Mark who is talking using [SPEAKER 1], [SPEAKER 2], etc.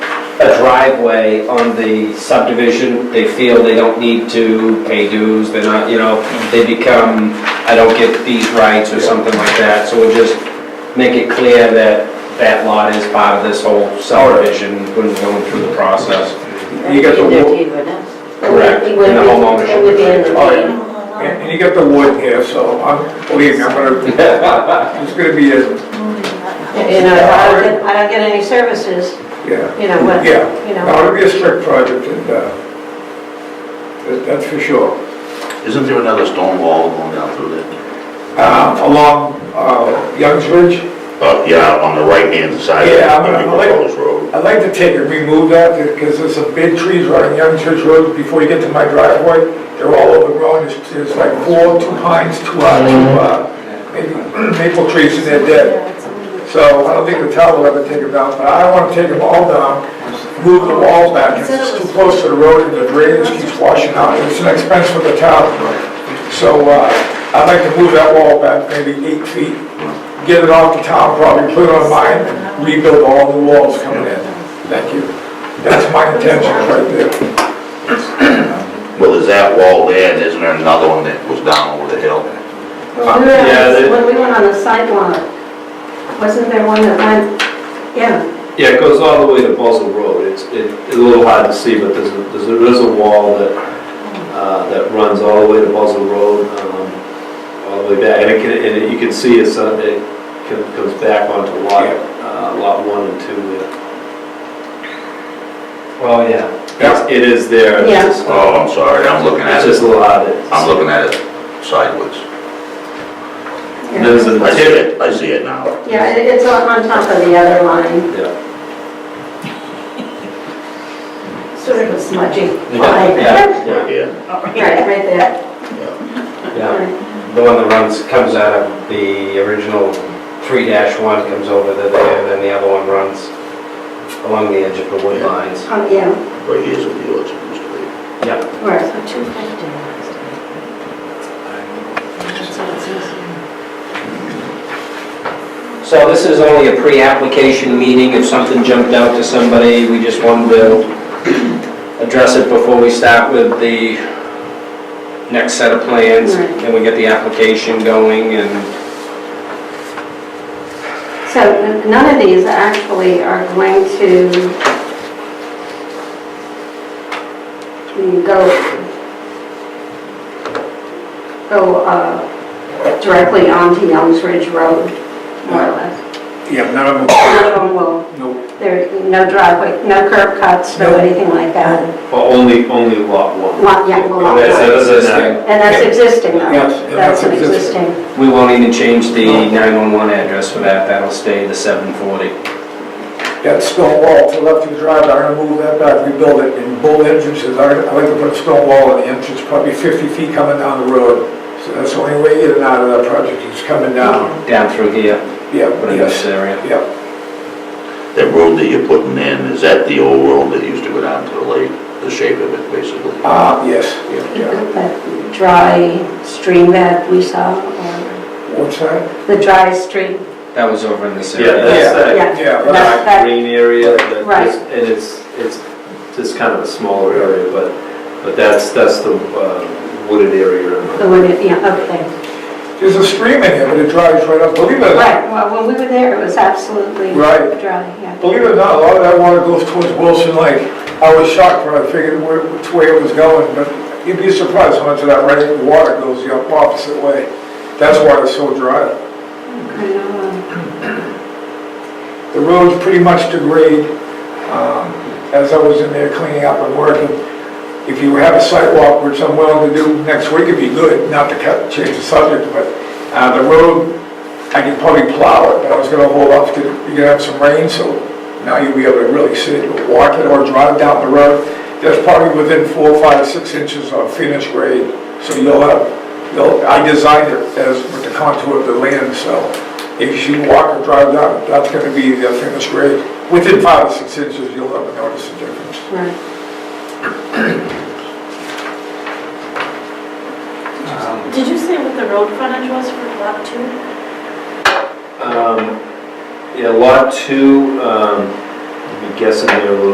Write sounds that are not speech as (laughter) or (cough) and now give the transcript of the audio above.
[SPEAKER 1] a driveway on the subdivision, they feel they don't need to pay dues, they're not, you know, they become, I don't get these rights or something like that, so we'll just make it clear that that lot is part of this whole subdivision when we're going through the process. You got the
[SPEAKER 2] In their
[SPEAKER 1] wa-
[SPEAKER 2] deed, wouldn't it?
[SPEAKER 1] Correct,
[SPEAKER 2] It
[SPEAKER 1] in
[SPEAKER 2] would
[SPEAKER 1] the
[SPEAKER 2] be-
[SPEAKER 1] home
[SPEAKER 2] It would be in
[SPEAKER 1] ownership.
[SPEAKER 2] the
[SPEAKER 3] All right.
[SPEAKER 2] deed.
[SPEAKER 3] And and you got the wood here, so I'm, believe me, I'm gonna, it's gonna be a,
[SPEAKER 2] You know, if I don't get, I don't get any services,
[SPEAKER 3] yeah.
[SPEAKER 2] you know, what,
[SPEAKER 3] Yeah.
[SPEAKER 2] you know.
[SPEAKER 3] Now, it'll be a strict project and, uh, that- that's for sure.
[SPEAKER 4] Isn't there another stone wall going down through there?
[SPEAKER 3] Um, Along uh, Youngs Ridge,
[SPEAKER 4] Uh, yeah, on the right-hand side of
[SPEAKER 3] Yeah, I'm-
[SPEAKER 4] the
[SPEAKER 3] I'm like-
[SPEAKER 4] proposed road.
[SPEAKER 3] I'd like to take and remove that because there's some big trees right on Young Church Road before you get to my driveway. They're all overgrown. There's, there's like four, two pines, two, uh, two, uh, maybe maple (clears throat) trees and they're dead. So I don't think the town will ever take them down, but I want to take them all down, move the walls back. It's too close to the road and the drainage keeps washing out. It's an expense for the town. So, uh, I'd like to move that wall back maybe eight feet, get it off the town property, put it on mine, and rebuild all the walls coming in. Thank you. That's my intention right there.
[SPEAKER 4] Well, is that wall there, and isn't there another one that was down over the hill?
[SPEAKER 2] Well, we were on
[SPEAKER 1] Yeah,
[SPEAKER 2] the-
[SPEAKER 1] they-
[SPEAKER 2] When we went on the sidewalk, wasn't there one that went, yeah,
[SPEAKER 5] Yeah, it goes all the way to Buzzell Road. It's, it- it's a little hard to see, but there's, a- there's a- there's a wall that, uh, that runs all the way to Buzzell Road, um, all the way back. And it can, and it- you can see it's, uh, it co- comes back onto lot, uh, lot one and two there.
[SPEAKER 1] Oh,
[SPEAKER 5] Well, yeah. It's- It is there. It's
[SPEAKER 2] Yeah.
[SPEAKER 5] just-
[SPEAKER 4] Oh, I'm sorry, I'm looking at
[SPEAKER 5] It's
[SPEAKER 4] it,
[SPEAKER 5] just a little hard to.
[SPEAKER 4] I'm looking at it sideways.
[SPEAKER 5] And There's a
[SPEAKER 4] I see it, I see it now.
[SPEAKER 2] yeah, it- it's on on top of the other line,
[SPEAKER 5] Yeah,
[SPEAKER 2] sort of a smudgy
[SPEAKER 1] Oh,
[SPEAKER 2] line.
[SPEAKER 1] Yeah, yeah.
[SPEAKER 4] Yeah,
[SPEAKER 2] Right, right there.
[SPEAKER 1] Yeah. The one that runs, comes out of the original three one comes over to there, and then the other one runs along the edge of the wood lines.
[SPEAKER 2] Oh, yeah,
[SPEAKER 4] but here's what yours used to be.
[SPEAKER 1] Yeah.
[SPEAKER 2] right.
[SPEAKER 1] So this is only a pre-application meeting, if something jumped out to somebody, we just wanted to address it before we start with the next set of plans,
[SPEAKER 2] Right.
[SPEAKER 1] and we get the application going, and
[SPEAKER 2] So n- none of these actually are going to go, go uh, directly onto Youngs Ridge Road, more or less.
[SPEAKER 3] Yeah, none of
[SPEAKER 2] None of them will,
[SPEAKER 3] no,
[SPEAKER 2] there, no driveway, no curb cuts, no anything like that.
[SPEAKER 5] but only, only lot one.
[SPEAKER 2] Lot, yeah, well, lot
[SPEAKER 5] That's-
[SPEAKER 2] line.
[SPEAKER 5] that's
[SPEAKER 1] this
[SPEAKER 5] not-
[SPEAKER 1] thing,
[SPEAKER 2] And that's existing, though.
[SPEAKER 3] Yes, and
[SPEAKER 2] That's
[SPEAKER 3] that's
[SPEAKER 2] an
[SPEAKER 3] existing.
[SPEAKER 2] existing.
[SPEAKER 1] we won't even change the 911 address for that, that'll stay the 740.
[SPEAKER 3] that stone wall to the left of the driveway, I'm gonna move that back, rebuild it, and both entrances, I, I like to put a stone wall in the entrance, probably fifty feet coming down the road. So that's the only way in and out of that project, is coming down.
[SPEAKER 1] down through here,
[SPEAKER 3] Yeah,
[SPEAKER 1] put in this
[SPEAKER 3] yes,
[SPEAKER 1] area.
[SPEAKER 3] yeah.
[SPEAKER 4] That road that you're putting in, is that the old road that used to go down to the lake, the shape of it, basically?
[SPEAKER 3] Ah, yes, yeah.
[SPEAKER 2] That dry stream that we saw, or
[SPEAKER 3] What's that?
[SPEAKER 2] the dry stream,
[SPEAKER 1] That was over in this
[SPEAKER 5] Yeah,
[SPEAKER 1] area.
[SPEAKER 5] that's that
[SPEAKER 2] yeah.
[SPEAKER 3] Yeah,
[SPEAKER 2] That-
[SPEAKER 3] right.
[SPEAKER 2] that-
[SPEAKER 5] green area, that
[SPEAKER 2] Right.
[SPEAKER 5] is- and it's, it's just kind of a smaller area, but, but that's, that's the uh, wooded
[SPEAKER 2] The
[SPEAKER 5] area.
[SPEAKER 2] one, that- yeah, okay.
[SPEAKER 3] There's a stream in here, but it dries right up, believe it or not.
[SPEAKER 2] Right, well, when we were there, it was absolutely dry,
[SPEAKER 3] Right.
[SPEAKER 2] yeah.
[SPEAKER 3] Believe it or not, a lot of that water goes towards Wilson Lake. I was shocked when I figured where, which way it was going, but you'd be surprised how much of that rain water goes the opposite way. That's why it's so dry.
[SPEAKER 2] I know.
[SPEAKER 3] The road's pretty much degrade, um, as I was in there cleaning up and working. If you have a sidewalk, which I'm willing to do next week, it'd be good, not to cut, change the subject, but, uh, the road, I could probably plow it, but I was gonna hold off, 'cause you're gonna have some rain, so now you'll be able to really see it, walk it or drive down the road. That's probably within four, five, six inches of finished grade, so you'll have, you'll, I designed it as with the contour of the land, so if you walk or drive down, that's gonna be the finished grade. Within five or six inches, you'll never notice the difference.
[SPEAKER 2] Right.
[SPEAKER 6] Did you say what the road frontage was for lot two?
[SPEAKER 5] Um, Yeah, lot two, um, I'm guessing there a little